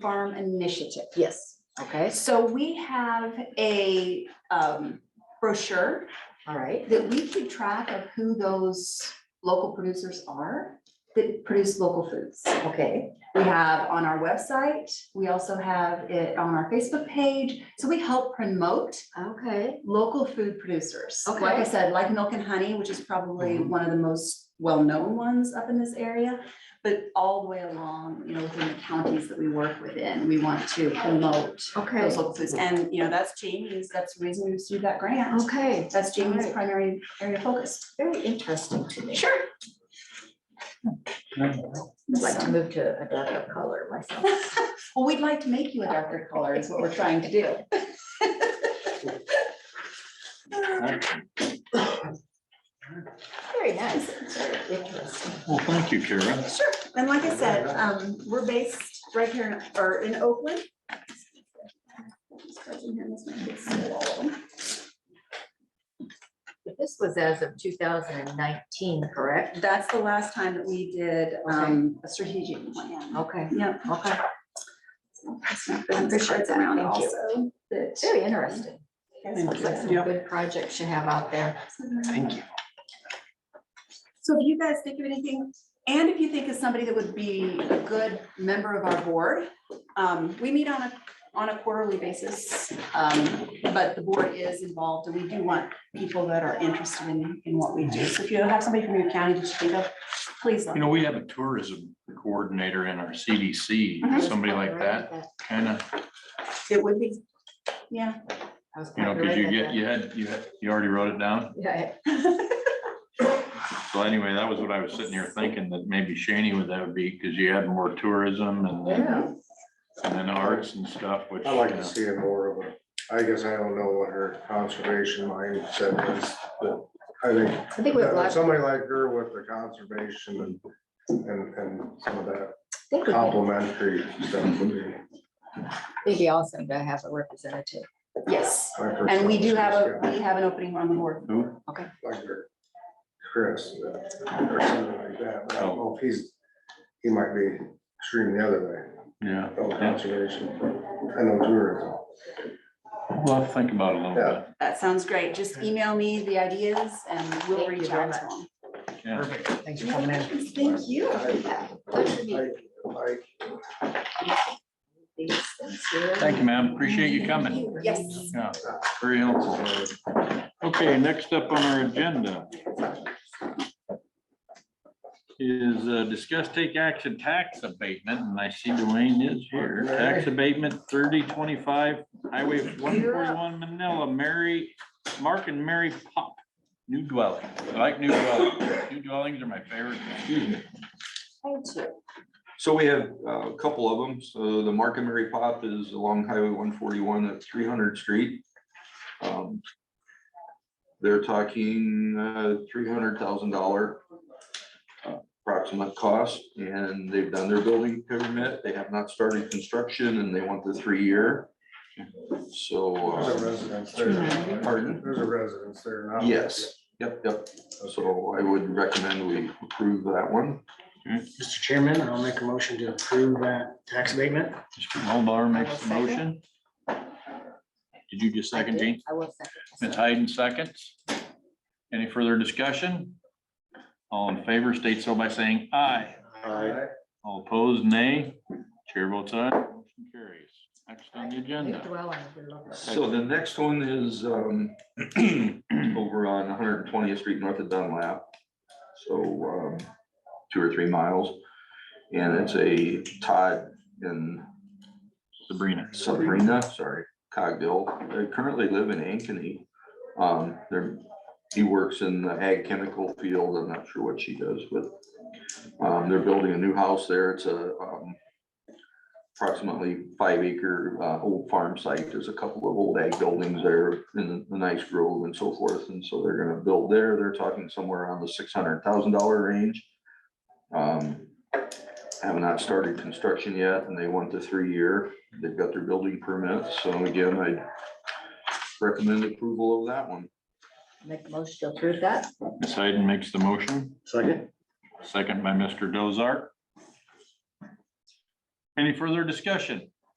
Farm Initiative. Yes, okay, So we have a um, brochure all right, that we keep track of who those local producers are that produce local foods. okay, We have on our website, we also have it on our Facebook page. So we help promote okay, local food producers. Like I Okay. said, like Milk and Honey, which is probably Mhm. one of the most well-known ones up in this area. But all the way along, you know, within the counties that we work within, we want to promote okay, those local foods. And, you know, that's Jamie's, that's the reason we received that grant. okay. That's Jamie's Alright. primary area of focus. Very interesting to me. Sure. I'd like to move to a darker color myself. Well, we'd like to make you a darker color is what we're trying to do. Very nice, very interesting. Well, thank you, Kara. Sure, and like I said, um, we're based right here in, or in Oakland. But This was as of two thousand and nineteen, correct? That's the last time that we did, um, a strategic plan. Okay, Yep. okay, I'm pretty sure it's around Thank you. also that- very interesting. Sounds like some Yeah. good projects you have out there. Thank you. So if you guys think of anything, and if you think of somebody that would be a good member of our board, um, we meet on a, on a quarterly basis. Um, but the board is involved, and we do want people that are interested in, in what we do. So if you have somebody from your county that you think of, please let You me. know, we have a tourism coordinator in our CDC, Mm-hmm. Mhm. somebody like that, kind of, It would be, yeah. I was you know, because you get, you had, you had, you already wrote it down. Yeah, So anyway, that was what I was sitting here thinking, that maybe Shaney would, that would be, because you had more tourism and then, yeah, and then arts and stuff, which. i like you know, to see it more of a, I guess I don't know what her conservation mindset is, but I think. I think we have that lots, I Somebody like her with the conservation and, and, and some of that think we can, complimentary stuff would be. it'd be awesome to have a representative. Yes, like her and we do have a, conservation, we have an opening on the board. Who? Like her, Chris, uh, or something like that, but I don't know if he's, he might be extreme the other Yeah, way, no conservation, and no tourism. well, I'll think about it a little bit. That sounds great. Just email me the ideas and we'll Thank you reach very out to much. them. Yeah, Thanks for coming in. Thank you. Those would be I- I- these things here. thank you, ma'am. Appreciate you Thank coming. you. Yes. Yeah, very helpful. Okay, next up on our agenda is uh, discuss take action tax abatement, and I see Dwayne is here. Tax abatement thirty twenty-five, Highway one forty-one, Manila, Mary, Mark and Mary Pop, new dwelling. I like new dwellings. New dwellings are my favorite. Thank you. So we have uh, a couple of them. So the Mark and Mary Pop is along Highway one forty-one at three hundred street. Um, They're talking uh, three hundred thousand dollar uh, approximate cost, and they've done their building permit. They have not started construction, and they want the three-year. So, There's a uh, residence there. Pardon? There's a residence there now. yes, yep, yep. So I would recommend we approve that one. Mr. Chairman, I'll make a motion to approve that tax abatement. Mulbar makes the motion. Did you just I second, did. Gene? I will Ms. second. Hayden seconds. Any further discussion? All in favor, state so by saying aye. Aye. All opposed, nay. Chair votes aye. Motion carries. Next on the New agenda. dwelling would be lovely. So the next one is um, over on one hundred and twentieth street north of Dunlap. So um, two or three miles. And it's a Todd and Sabrina. Sabrina, sorry, Cogdill. They currently live in Ankeny. Um, They're, he works in the ag chemical field. I'm not sure what she does, but um, they're building a new house there. It's a um, approximately five acre uh, old farm site. There's a couple of old ag buildings there in the nice grove and so forth. And so they're gonna build there. They're talking somewhere around the six hundred thousand dollar range. Um, Have not started construction yet and they want the three year. They've got their building permit, so again, I recommend approval of that one. Make a motion to approve that. Ms. Hayden makes the motion, Second? second by Mr. Dozart. Any further discussion?